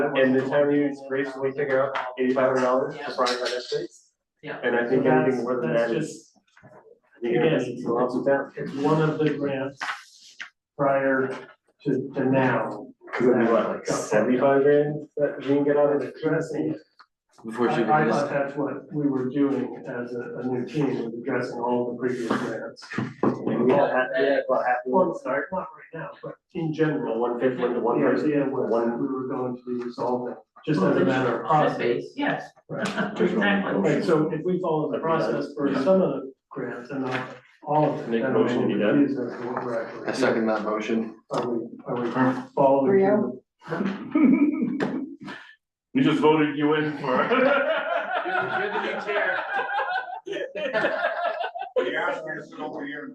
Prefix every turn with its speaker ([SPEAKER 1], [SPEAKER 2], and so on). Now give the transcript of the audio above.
[SPEAKER 1] And the town units gracefully took out eighty-five hundred dollars for Pride by Estate.
[SPEAKER 2] Yeah.
[SPEAKER 1] And I think anything more than that
[SPEAKER 3] That's
[SPEAKER 1] is,
[SPEAKER 3] just,
[SPEAKER 1] I think it is a lot of that.
[SPEAKER 3] it's one of the grants prior to, to now.
[SPEAKER 1] Cause it'd be what, like seventy-five grand that you can get out of the dressing?
[SPEAKER 4] Before she
[SPEAKER 3] I, I
[SPEAKER 4] begins,
[SPEAKER 3] thought that's what we were doing as a, a new team, was addressing all the previous grants.
[SPEAKER 1] And we had, we had about half of
[SPEAKER 3] Well,
[SPEAKER 1] one
[SPEAKER 3] it's
[SPEAKER 1] start,
[SPEAKER 3] not not right now, but in general,
[SPEAKER 1] from one fifth one to
[SPEAKER 3] the
[SPEAKER 1] one person.
[SPEAKER 3] idea was
[SPEAKER 1] One-
[SPEAKER 3] we were going to be resolving, just as a matter of process.
[SPEAKER 2] Yes.
[SPEAKER 3] Right.
[SPEAKER 2] Exactly.
[SPEAKER 3] Right, so if we follow the process for some of the grants and not all of them.
[SPEAKER 1] Make a
[SPEAKER 3] then we'll
[SPEAKER 1] motion to do
[SPEAKER 3] be
[SPEAKER 1] that.
[SPEAKER 3] confused as to what we're actually
[SPEAKER 4] I second that motion.
[SPEAKER 3] doing. Are we, are we following?
[SPEAKER 5] Rio?
[SPEAKER 6] We just voted you in for.
[SPEAKER 2] You're the new chair.
[SPEAKER 6] They asked me to sit over here and